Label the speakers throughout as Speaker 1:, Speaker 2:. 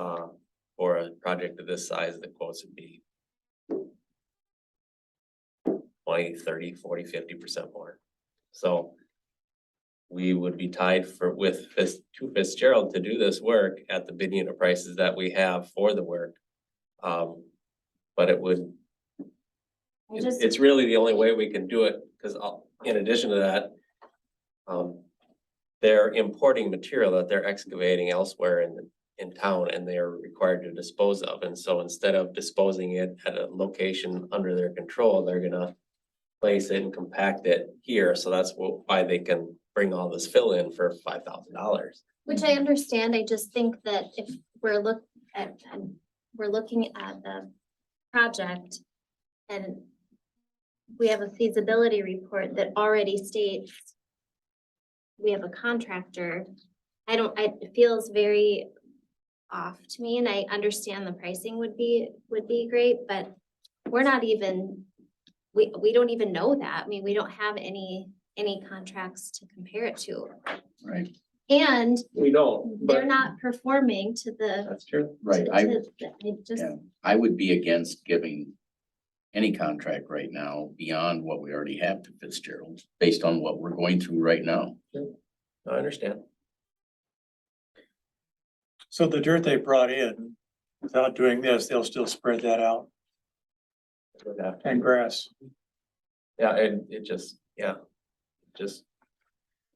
Speaker 1: um, a project of this size, the quotes would be. 20, 30, 40, 50 percent more, so. We would be tied for with Fitz, to Fitzgerald to do this work at the bid unit prices that we have for the work. Um, but it would,
Speaker 2: I
Speaker 1: it-
Speaker 2: just,
Speaker 1: it's really the only way we can do it, because in addition to that. Um, they're importing material that they're excavating elsewhere in, in town and they are required to dispose of. And so instead of disposing it at a location under their control, they're gonna. Place it and compact it here, so that's wh- why they can bring all this fill in for five thousand dollars.
Speaker 2: which I understand, I just think that if we're look, at, um, we're looking at the project and we have a feasibility report that already states we have a contractor. I don't, I- it feels very off to me and I understand the pricing would be, would be great, but we're not even, we, we don't even know that. I mean, we don't have any, any contracts to compare it to.
Speaker 3: Right,
Speaker 2: And
Speaker 1: We don't,
Speaker 2: they're not performing to the.
Speaker 1: That's true.
Speaker 3: right.
Speaker 2: to-
Speaker 3: I,
Speaker 2: to- it just,
Speaker 3: yeah, I would be against giving any contract right now beyond what we already have to Fitzgerald, based on what we're going through right now.
Speaker 1: I understand.
Speaker 4: So the dirt they brought in, without doing this, they'll still spread that out and grass.
Speaker 1: Yeah, and it just, yeah, just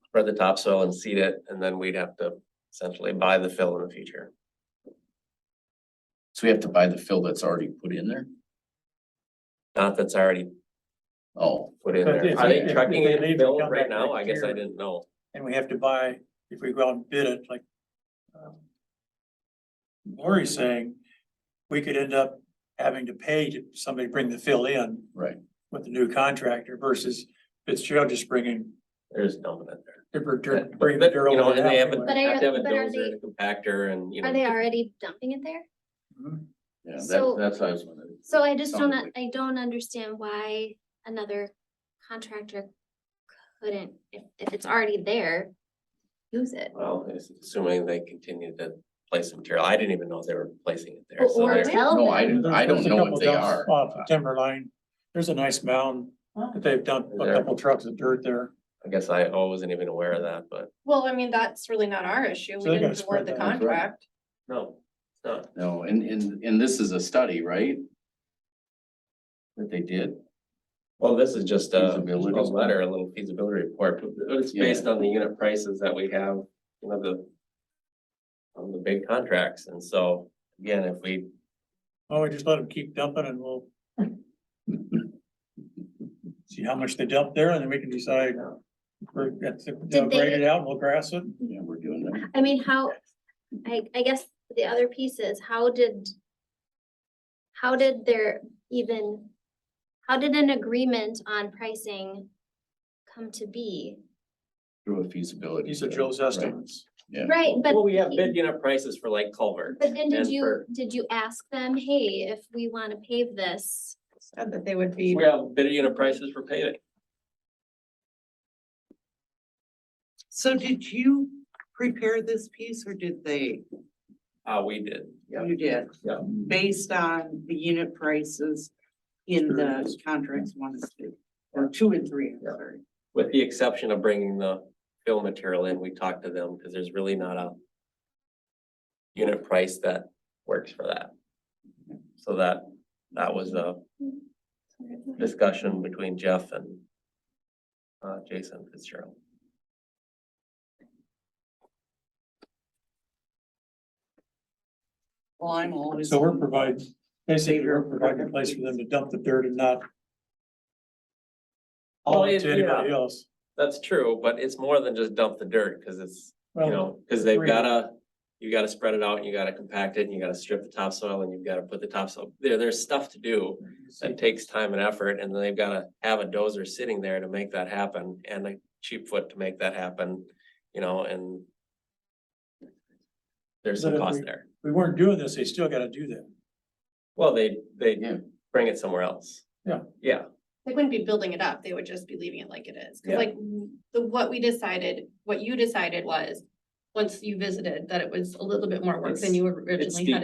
Speaker 1: spread the topsoil and seed it, and then we'd have to essentially buy the fill in the future.
Speaker 3: So we have to buy the fill that's already put in there?
Speaker 1: Not that's already
Speaker 3: Oh,
Speaker 1: put in
Speaker 4: But
Speaker 1: there.
Speaker 4: if-
Speaker 1: Are they
Speaker 4: if- if
Speaker 1: trucking
Speaker 4: they
Speaker 1: it
Speaker 4: leave,
Speaker 1: fill
Speaker 4: come
Speaker 1: right
Speaker 4: back
Speaker 1: now?
Speaker 4: next
Speaker 1: I guess I
Speaker 4: year.
Speaker 1: didn't know.
Speaker 4: And we have to buy, if we go out and bid it, like um, Lori's saying, we could end up having to pay to somebody to bring the fill in
Speaker 3: right.
Speaker 4: with the new contractor versus Fitzgerald just bringing,
Speaker 1: There's dumping it there.
Speaker 4: they're
Speaker 1: Yeah,
Speaker 4: bringing
Speaker 1: but-
Speaker 4: bringing the
Speaker 1: but,
Speaker 4: dirt
Speaker 1: you know, and
Speaker 4: over
Speaker 1: they
Speaker 4: there.
Speaker 1: haven't-
Speaker 2: But I-
Speaker 1: Have to have a
Speaker 2: but are
Speaker 1: dozer and a compactor and, you know.
Speaker 2: are they already dumping it there?
Speaker 3: Yeah, that,
Speaker 2: So-
Speaker 3: that's what I was wondering.
Speaker 2: So I just don't,
Speaker 3: Sounds like-
Speaker 2: I don't understand why another contractor couldn't, if, if it's already there, use it.
Speaker 1: Well, it's assuming they continue to place the material. I didn't even know they were placing it there.
Speaker 2: Or-
Speaker 1: So
Speaker 2: Or
Speaker 1: they're-
Speaker 2: tell
Speaker 3: No, I
Speaker 2: them,
Speaker 3: didn't, I don't
Speaker 4: There's a
Speaker 3: know
Speaker 4: couple
Speaker 3: if they
Speaker 4: dumps
Speaker 3: are.
Speaker 4: Off of Timberline, there's a nice mound that they've dumped a
Speaker 1: There.
Speaker 4: couple trucks of dirt there.
Speaker 1: I guess I I wasn't even aware of that, but
Speaker 5: Well, I mean, that's really not our issue.
Speaker 4: So they
Speaker 5: We
Speaker 4: gotta
Speaker 5: didn't
Speaker 4: spread
Speaker 5: award the
Speaker 4: that out, right?
Speaker 5: contract.
Speaker 1: no, it's not.
Speaker 3: No, and, and, and this is a study, right? That they did?
Speaker 1: Well, this is just a, a
Speaker 3: Feasibility.
Speaker 1: letter, a little feasibility report, but it's
Speaker 3: Yeah.
Speaker 1: based on the unit prices that we have, you know, the. On the big contracts, and so, again, if we,
Speaker 4: Oh, we just let them keep dumping and we'll see how much they dump there and then we can decide. We're, that's, they'll grade it out, we'll grass it.
Speaker 3: Yeah, we're doing that.
Speaker 2: I mean, how, I, I guess the other piece is, how did, how did there even, how did an agreement on pricing come to be?
Speaker 3: Through a feasibility.
Speaker 4: These are
Speaker 3: study,
Speaker 4: Joe's
Speaker 3: right?
Speaker 4: estimates.
Speaker 3: Yeah.
Speaker 2: Right, but.
Speaker 1: well, we have
Speaker 2: you-
Speaker 1: bid unit prices for like culverts.
Speaker 2: But then did
Speaker 1: and
Speaker 2: you,
Speaker 1: for-
Speaker 2: did you ask them, hey, if we wanna pave this?
Speaker 5: Said that they would be,
Speaker 1: We have bid unit prices for paving.
Speaker 6: So did you prepare this piece or did they?
Speaker 1: Uh, we did.
Speaker 6: You did?
Speaker 1: Yeah.
Speaker 6: Based on the unit prices in the contracts one and two, or two and three, I'm
Speaker 1: Yeah.
Speaker 6: sorry.
Speaker 1: With the exception of bringing the fill material in, we talked to them, because there's really not a. Unit price that works for that. So that, that was a discussion between Jeff and. Uh, Jason Fitzgerald.
Speaker 6: Well, I'm always.
Speaker 4: So we're providing, basically, we're providing a place for them to dump the dirt and not haul
Speaker 1: Well,
Speaker 4: it
Speaker 1: it-
Speaker 4: to anybody else.
Speaker 1: That's true, but it's more than just dump the dirt, because it's, you
Speaker 4: Well,
Speaker 1: know, because they've
Speaker 4: Agreed.
Speaker 1: gotta. You gotta spread it out, and you gotta compact it, and you gotta strip the topsoil, and you've gotta put the topsoil, there, there's stuff to do. That takes time and effort, and then they've gotta have a dozer sitting there to make that happen, and a cheap foot to make that happen, you know, and. There's some
Speaker 4: But if
Speaker 1: cost
Speaker 4: we-
Speaker 1: there,
Speaker 4: we weren't doing this, they still gotta do that.
Speaker 1: well, they, they
Speaker 3: Yeah.
Speaker 1: bring it somewhere else.
Speaker 4: Yeah.
Speaker 1: Yeah,
Speaker 5: they wouldn't be building it up. They would just be leaving it like it is.
Speaker 1: Yeah.
Speaker 5: Cause like the, what we decided, what you decided was, once you visited, that it was a little bit more work
Speaker 1: It's-
Speaker 5: than you
Speaker 1: it's
Speaker 5: originally
Speaker 1: steep.
Speaker 5: had